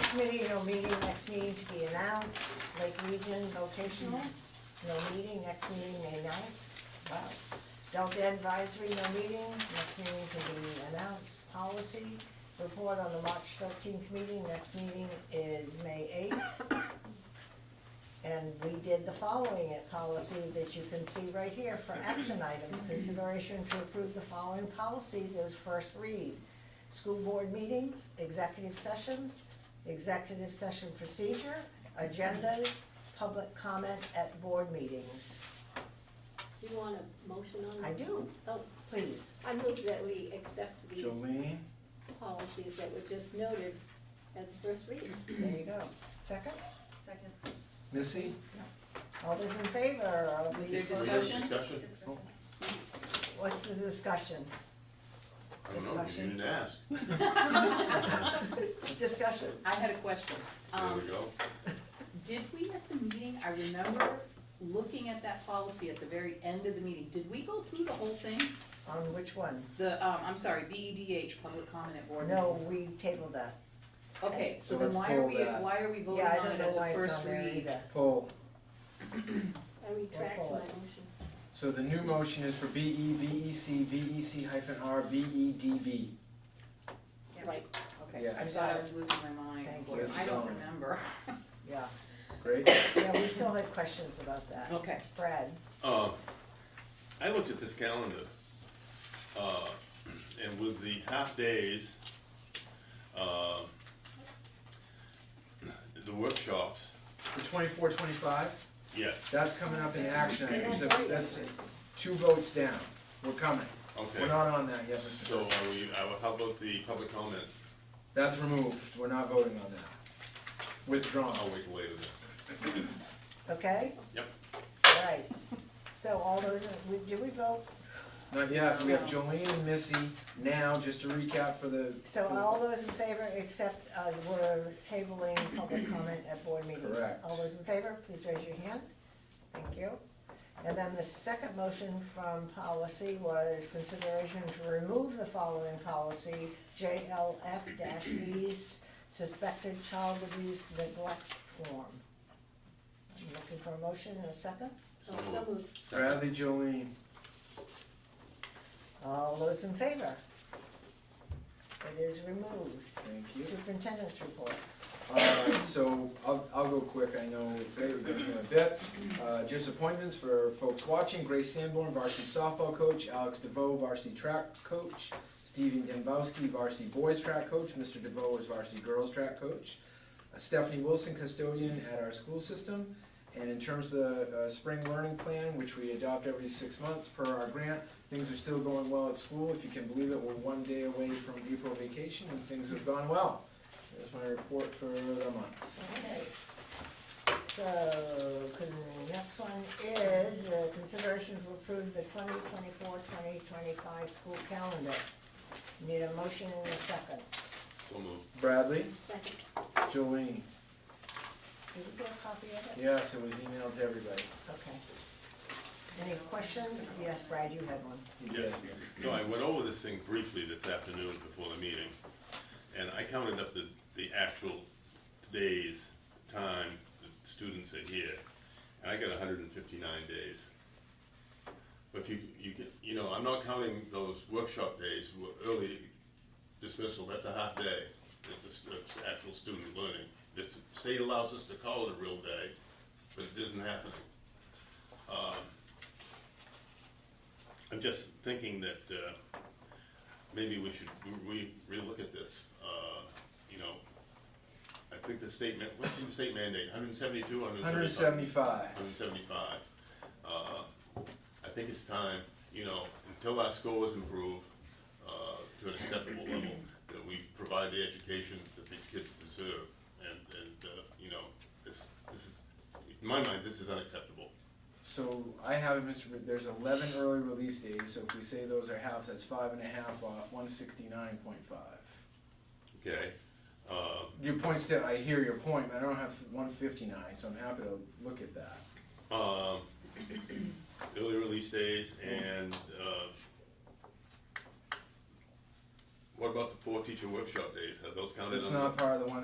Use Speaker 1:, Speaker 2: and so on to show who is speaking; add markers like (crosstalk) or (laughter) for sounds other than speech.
Speaker 1: committee, no meeting, next meeting to be announced, Lake Region vocational, no meeting, next meeting May ninth. Wow. Delta advisory, no meeting, next meeting to be announced, policy, report on the March thirteenth meeting, next meeting is May eighth. And we did the following at policy that you can see right here for action items, consideration to approve the following policies as first read. School board meetings, executive sessions, executive session procedure, agendas, public comment at board meetings.
Speaker 2: Do you want a motion on that?
Speaker 1: I do,
Speaker 2: Oh,
Speaker 1: please.
Speaker 2: I move that we accept these
Speaker 3: Jolene,
Speaker 2: policies that were just noted as first reading.
Speaker 1: There you go. Second,
Speaker 4: Second.
Speaker 3: Missy,
Speaker 1: all those in favor of
Speaker 4: Was
Speaker 1: the
Speaker 4: there
Speaker 1: first-
Speaker 4: discussion?
Speaker 5: Discussion?
Speaker 4: Discussion.
Speaker 1: What's the discussion?
Speaker 5: I don't know, you
Speaker 1: Discussion.
Speaker 5: didn't ask.
Speaker 6: (laughs)
Speaker 1: Discussion.
Speaker 6: I had a question.
Speaker 5: There we
Speaker 6: Um,
Speaker 5: go.
Speaker 6: did we at the meeting, I remember looking at that policy at the very end of the meeting, did we go through the whole thing?
Speaker 1: On which one?
Speaker 6: The, um, I'm sorry, BEDH, public comment at board
Speaker 1: No,
Speaker 6: meetings?
Speaker 1: we tabled that.
Speaker 6: Okay,
Speaker 3: So
Speaker 6: so then
Speaker 3: let's
Speaker 6: why are
Speaker 3: pull
Speaker 6: we,
Speaker 3: that.
Speaker 6: why are we voting
Speaker 1: Yeah, I
Speaker 6: on
Speaker 1: don't
Speaker 6: it
Speaker 1: know
Speaker 6: as
Speaker 1: why
Speaker 6: a
Speaker 1: it's
Speaker 6: first
Speaker 1: on there
Speaker 6: read?
Speaker 1: either.
Speaker 3: poll.
Speaker 2: I retract my
Speaker 1: We'll pull it.
Speaker 2: motion.
Speaker 3: So the new motion is for B E, B E C, B E C hyphen R, B E D B.
Speaker 4: Yeah.
Speaker 6: Right,
Speaker 1: Okay.
Speaker 3: Yeah.
Speaker 6: I
Speaker 1: we
Speaker 6: thought
Speaker 1: got
Speaker 6: I
Speaker 1: it.
Speaker 6: was losing my mind,
Speaker 1: Thank
Speaker 6: Boy,
Speaker 3: you.
Speaker 6: I don't remember.
Speaker 1: Yeah,
Speaker 3: Great.
Speaker 1: yeah, we still had questions about that.
Speaker 6: Okay,
Speaker 1: Brad,
Speaker 5: Uh, I looked at this calendar, uh, and with the half days, uh, the workshops,
Speaker 3: The twenty-four, twenty-five,
Speaker 5: yes,
Speaker 3: that's coming up in action items,
Speaker 2: Yeah.
Speaker 3: That- that's two votes down, we're coming. We're
Speaker 5: okay.
Speaker 3: not on that yet, Mr.
Speaker 5: So are
Speaker 3: Burke.
Speaker 5: we, uh, how about the public comment?
Speaker 3: That's removed, we're not voting on that. Withdrawn.
Speaker 5: I'll wait later then.
Speaker 1: okay?
Speaker 5: Yep.
Speaker 1: All right, so all those, we- did we vote?
Speaker 3: Not yet, we have
Speaker 6: No.
Speaker 3: Jolene and Missy now, just to recap for the.
Speaker 1: So
Speaker 3: for-
Speaker 1: all those in favor, except uh, we're tabling public comment at board meetings.
Speaker 3: Correct.
Speaker 1: All those in favor, please raise your hand. Thank you. And then the second motion from policy was consideration to remove the following policy, JLF-E's suspected child abuse neglect form. I'm looking for a motion and a second.
Speaker 2: Oh, so moved.
Speaker 3: Bradley, Jolene,
Speaker 1: All those in favor? It is removed.
Speaker 3: thank you.
Speaker 1: Superintendent's report.
Speaker 3: Alright, so I'll, I'll go quick, I know it's late, we've been here a bit. Uh, just appointments for folks watching, Grace Sanborn, varsity softball coach, Alex DeVoe, varsity track coach, Steven Dembowski, varsity boys track coach, Mr. DeVoe is varsity girls track coach, Uh, Stephanie Wilson, custodian at our school system. And in terms of the uh, spring learning plan, which we adopt every six months per our grant, things are still going well at school. If you can believe it, we're one day away from April vacation and things have gone well. There's my report for the month.
Speaker 1: Okay. So, con- the next one is uh, consideration to approve the 2024-2025 school calendar. Need a motion and a second.
Speaker 5: So moved.
Speaker 3: Bradley,
Speaker 2: Second.
Speaker 3: Jolene.
Speaker 1: Did we get a copy of it?
Speaker 3: Yes, it was emailed to everybody.
Speaker 1: Okay. Any questions? Yes, Brad, you had one.
Speaker 5: Yes. So I went over this thing briefly this afternoon before the meeting, and I counted up the, the actual days, time the students are here, and I got hundred and fifty-nine days. But if you, you can, you know, I'm not counting those workshop days, wo- early dismissal, that's a half day, that the, s- that's actual student learning. The s- state allows us to call it a real day, but it isn't happening. Um, I'm just thinking that uh, maybe we should re- re- relook at this. Uh, You know, I think the state, man- what's the state mandate, 172,
Speaker 3: 175.
Speaker 5: 175? 175. Uh, I think it's time, you know, until our scores improve uh, to an acceptable level, that we provide the education that these kids deserve. And, and, uh, you know, this, this is, in my mind, this is unacceptable.
Speaker 3: So I have, it, Mr. Br- there's eleven early release days, so if we say those are half, that's five and a half off, one sixty-nine point five.
Speaker 5: Okay? Um,
Speaker 3: Your point still, I hear your point, but I don't have one fifty-nine, so I'm happy to look at that.
Speaker 5: um, (coughs) early release days and, uh, what about the four teacher workshop days? Have those counted?
Speaker 3: It's
Speaker 5: under-
Speaker 3: not part of the one